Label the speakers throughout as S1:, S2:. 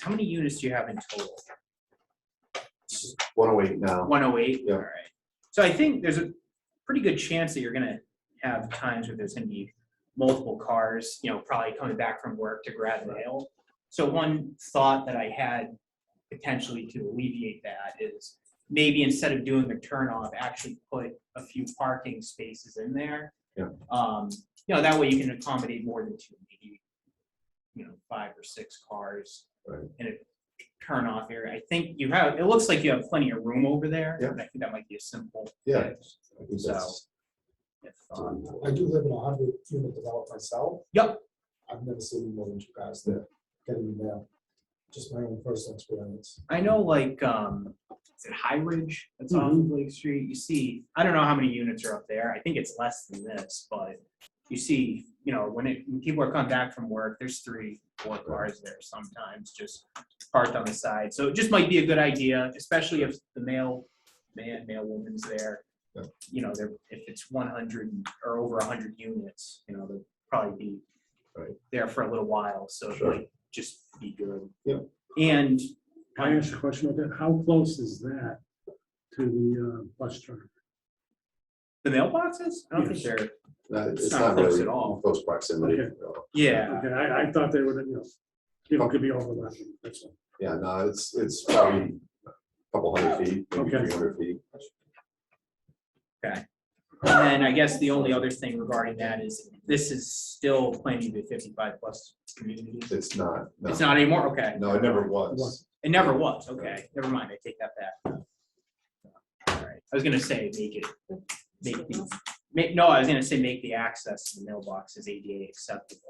S1: How many units do you have in total?
S2: One oh eight now.
S1: One oh eight?
S2: Yeah.
S1: All right. So I think there's a pretty good chance that you're gonna have times where there's gonna be multiple cars, you know, probably coming back from work to grab mail. So one thought that I had potentially to alleviate that is maybe instead of doing a turn off, actually put a few parking spaces in there.
S2: Yeah.
S1: Um, you know, that way you can accommodate more than two, maybe, you know, five or six cars.
S2: Right.
S1: In a turn off area. I think you have, it looks like you have plenty of room over there.
S2: Yeah.
S1: and I think that might be a simple.
S2: Yeah.
S1: fix
S2: I think that's-
S1: if, um,
S3: I do live in a hundred unit development myself.
S1: Yep.
S3: I've never seen more than two guys there getting mail. Just my own personal experience.
S1: I know like, um, is it High Ridge? That's on
S2: Mm-hmm.
S3: Mhm.
S1: Lake Street. You see, I don't know how many units are up there. I think it's less than this, but you see, you know, when it, when people are coming back from work, there's three, four cars there sometimes just parked on the side. So it just might be a good idea, especially if the male, man, male woman's there.
S2: Yeah.
S1: You know, they're, if it's one hundred or over hundred units, you know, they'll probably be
S2: Right.
S1: there for a little while. So it
S2: Sure.
S1: might just be good.
S2: Yeah.
S1: And
S4: I asked a question about that. How close is that to the uh, bus terminal?
S1: The mailboxes? I don't think they're.
S2: no,
S1: It's
S2: It's
S1: not
S2: not
S1: close
S2: really
S1: at all.
S2: close proximity.
S4: Okay.
S2: no.
S1: Yeah.
S4: Okay, I, I thought they were, you know, you know, could be overlapping, that's all.
S2: Yeah, no, it's, it's probably a couple hundred feet, maybe
S4: Okay.
S2: three hundred feet.
S1: And then I guess the only other thing regarding that is this is still planning to be fifty-five plus community.
S2: It's not, no,
S1: It's not anymore? Okay.
S2: no, it never was.
S1: It never was. Okay. Never mind. I take that back. All right. I was gonna say make it, make the, make, no, I was gonna say make the access to the mailboxes ADA acceptable,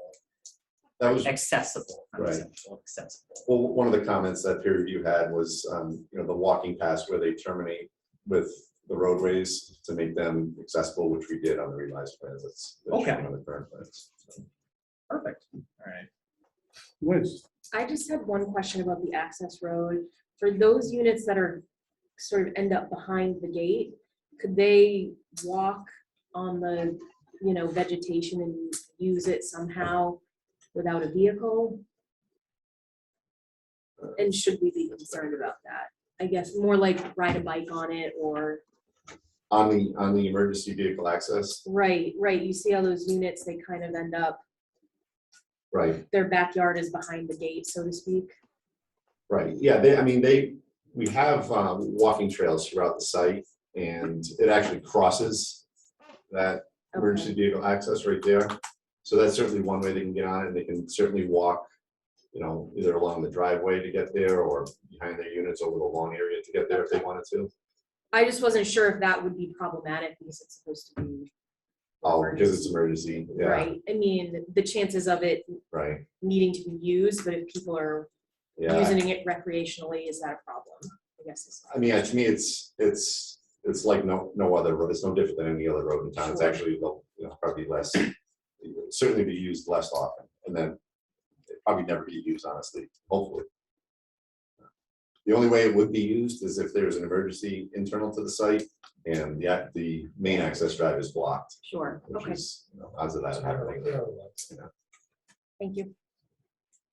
S2: That was,
S1: accessible, not
S2: Right.
S1: acceptable, accessible.
S2: well, one of the comments that peer review had was, um, you know, the walking paths where they terminate with the roadways to make them accessible, which we did on the revised plans. That's that's
S1: Okay.
S2: On the current plans.
S1: Perfect. All right.
S4: Liz,
S5: I just had one question about the access road. For those units that are sort of end up behind the gate, could they walk on the, you know, vegetation and use it somehow without a vehicle? And should we be concerned about that? I guess more like ride a bike on it or,
S2: On the, on the emergency vehicle access,
S5: right, right, you see how those units, they kind of end up,
S2: right,
S5: their backyard is behind the gate, so to speak.
S2: Right, yeah, they, I mean, they, we have uh, walking trails throughout the site, and it actually crosses that emergency
S5: Okay,
S2: vehicle access right there. So that's certainly one way they can get on it, and they can certainly walk, you know, either along the driveway to get there, or behind their units over the lawn area to get there if they wanted to.
S5: I just wasn't sure if that would be problematic because it's supposed to be
S2: Oh, because it's emergency, yeah,
S5: Right, I mean, the chances of it
S2: right,
S5: needing to be used, but if people are
S2: yeah.
S5: using it recreationally, is that a problem? I guess is.
S2: I mean, yeah, to me, it's, it's, it's like no, no other road, it's no different than any other road in town, it's
S5: Sure.
S2: actually, the- you know, probably less, certainly be used less often, and then it'd probably never be used, honestly, hopefully. The only way it would be used is if there's an emergency internal to the site, and the, ac- the main access drive is blocked,
S5: Sure,
S2: which
S5: okay,
S2: is, you know, odds of that happening.
S3: Parallels.
S5: thank you.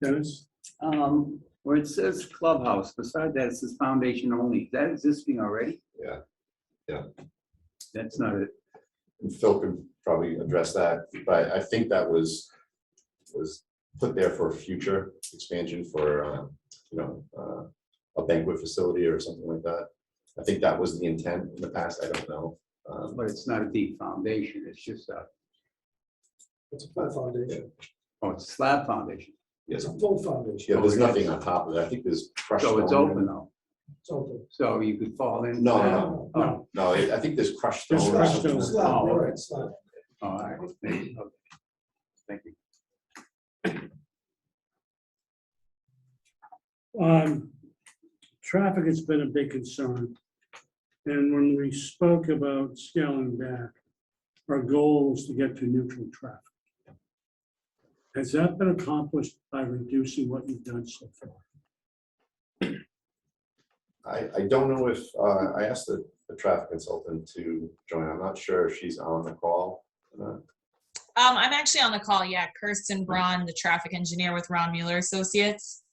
S4: Dennis,
S6: Um, where it says clubhouse, beside that it says foundation only. Is that existing already?
S2: Yeah. Yeah.
S6: That's not it.
S2: And Phil can probably address that, but I think that was, was put there for future expansion for, um, you know, uh, a banquet facility or something like that. I think that was the intent in the past, I don't know. Um,
S6: But it's not a deep foundation. It's just a,
S3: It's a flat foundation.
S6: oh, it's a slab foundation.
S3: It's
S2: Yes,
S3: a full foundation.
S2: yeah, there's nothing on top of it, I think there's crushed.
S6: So it's
S2: stone.
S6: open though.
S3: It's open.
S6: So you could fall in.
S2: No, no, no.
S3: No,
S6: Oh,
S2: No, I I think there's crushed.
S4: There's
S2: stone or
S4: crushed
S2: something.
S3: It's flat,
S6: Oh,
S3: right,
S6: okay.
S3: it's flat.
S6: all right. Thank you. Okay. Thank you.
S4: um, traffic has been a big concern. And when we spoke about scaling back, our goal was to get to neutral traffic. Has that been accomplished by reducing what you've done so far?
S2: I, I don't know if, uh, I asked the, the traffic consultant to join, I'm not sure if she's on the call. or not.
S7: Um, I'm actually on the call, yeah. Kirsten Braun, the traffic engineer with Ron Mueller Associates.